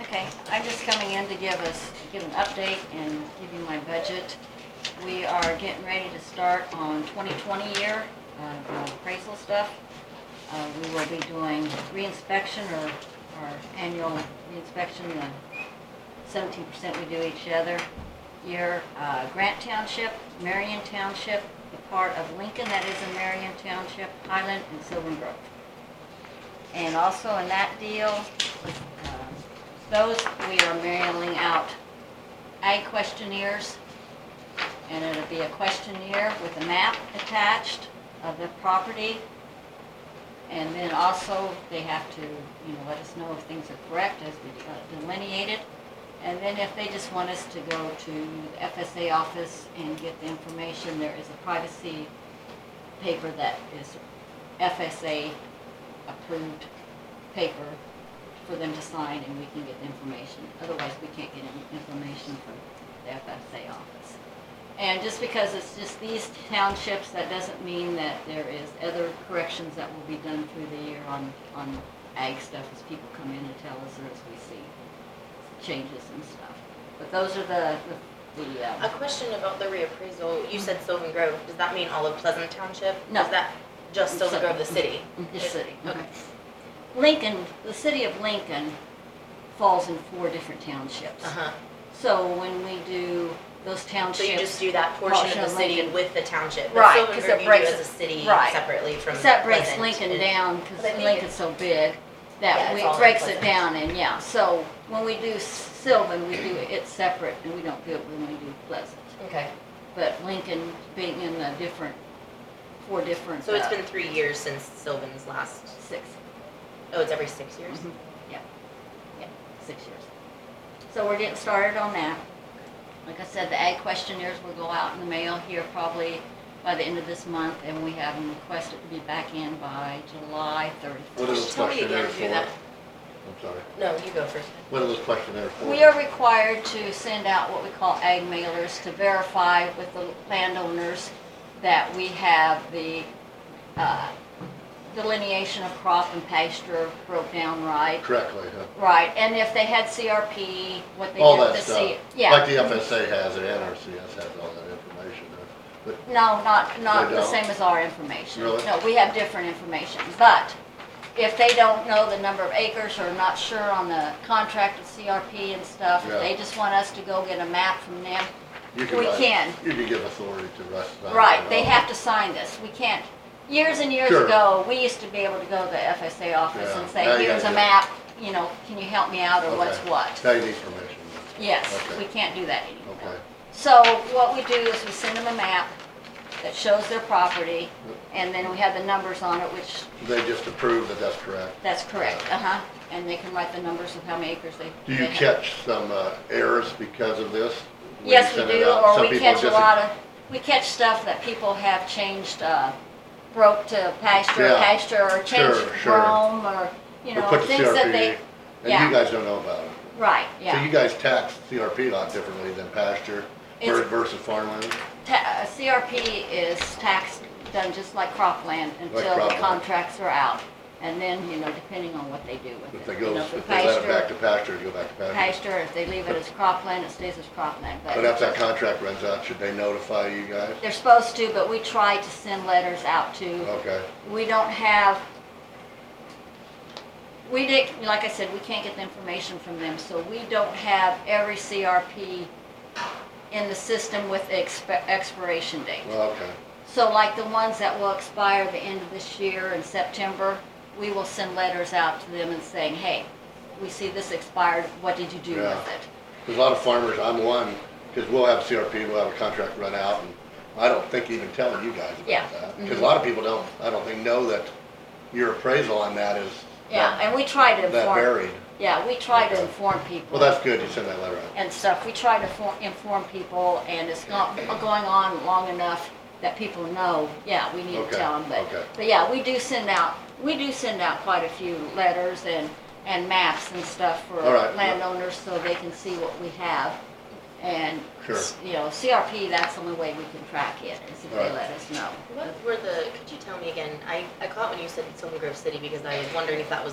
Okay, I'm just coming in to give us, give an update and give you my budget. We are getting ready to start on 2020 year of uh, appraisal stuff. Uh, We will be doing reinspection or, or annual reinspection, the 17% we do each other year. Uh, Grant Township, Marion Township, the part of Lincoln that is in Marion Township, Highland, and Sylvan Grove. And also in that deal, um, those, we are mailing out ag questionnaires. And it'll be a questionnaire with a map attached of the property. And then also, they have to, you know, let us know if things are correct as we uh, delineate it. And then if they just want us to go to the FSA office and get the information, there is a privacy paper that is FSA approved paper for them to sign and we can get the information. Otherwise, we can't get any information from the FSA office. And just because it's just these townships, that doesn't mean that there is other corrections that will be done through the year on, on ag stuff as people come in and tell us or as we see changes and stuff. But those are the, the- the, A uh, question about the reappraisal. You said Sylvan Grove. Does that mean all of Pleasant Township? No. Is that just Sylvan Grove, the city? the city. Okay. Lincoln, the city of Lincoln falls in four different townships. Uh-huh. So when we do those So you just townships, do that portion Portion of of the city Lincoln. with the township? but Right, Sylvan 'cause Grove it you do breaks- as a city right. separately from except breaks Pleasant Lincoln and- down, because But I think Lincoln's so big, Yeah, that it's we, all it in breaks it Pleasant. down, and yeah, so when we do Sylvan, we do it separate, and we don't do it when we do Pleasant. Okay. But Lincoln being in the different, four different, So it's uh, been three years since Sylvan's last. six, Oh, it's every six years. Mhm. yeah, yeah, six years. So we're getting started on that. Like I said, the ag questionnaires will go out in the mail here probably by the end of this month, and we have them requested to be back in by July thirty-first. What are those Tell me again questionnaires if you do that. for? I'm sorry. No, you go first. What are those questionnaires for? We are required to send out what we call ag mailers to verify with the landowners that we have the uh, delineation of crop and pasture broke down right. Correctly, huh? Right, and if they had CRP, what they All did that to stuff. see. Like Yeah, the FSA has, or NRCS has all that information, huh? no, not, not They the don't? same as our information. Really? No, we have different information, but if they don't know the number of acres or not sure on the contract with CRP and stuff, if Yeah. they just want us to go get a map from them, You can We write- can. You can give authority to us. Right, they have to sign this, we can't, years and years Sure. ago, we used to be able to go to the FSA office and Yeah, say, now you here's a gotta do it. map, you know, can you help me out, or what's what? Now you need permission, Yes, Okay. we can't do that okay. anymore. So what we do is we send them a map that shows their property, and then we have the numbers on it, which, They just approve that that's correct. Uh, that's correct, uh-huh, and they can write the numbers of how many acres they. Do you they have. catch some uh, errors because of this? when you Yes, we send it do, out? Some or we people catch a just- lot of, we catch stuff that people have changed, uh, broke to pasture, Yeah. pasture, or changed Sure, sure. Rome, or, you Or know, put the things that they, CRP, yeah. And you guys don't know about it. right, So you yeah. guys tax CRP a lot differently than pasture It's- versus farmland? Ta- uh, CRP is taxed, done just like cropland until the cropland. contracts are out. And then, you know, depending on what they do with it. If they you go, know, if for they let it pasture- back to pasture, it'll go back to pasture. Pasture, if they leave it as cropland, it stays as cropland, But after that contract runs out, should they notify you guys? They're supposed to, but we try to send letters out to Okay, we don't have, we did, like I said, we can't get the information from them, so we don't have every CRP in the system with the expi- expiration date. well, okay, So like the ones that will expire the end of this year in September, we will send letters out to them and saying, hey, we see this expired, what did you do Yeah. with it? there's a lot of farmers, I'm one, because we'll have CRP, we'll have a contract run out, and I don't think even telling you guys Yeah, Mm-hmm. about that. Because a lot of people don't, I don't think know that your appraisal on that is Yeah, that and we try to that inform, varied. yeah, we try to Okay. inform people. Well, that's good, you send that letter out. and stuff, we try to for- inform people, and it's not going on long enough that people know, yeah, we need to Okay, tell them, okay. but, but yeah, we do send out, we do send out quite a few letters and, and maps and stuff for All right, yeah. landowners, so they can see what we have. And, Sure. you know, CRP, that's the only way we can track it, is if All they right. let us know. What were the? Could you tell me again? I I caught when you said Sylvan Grove City because I was wondering if that was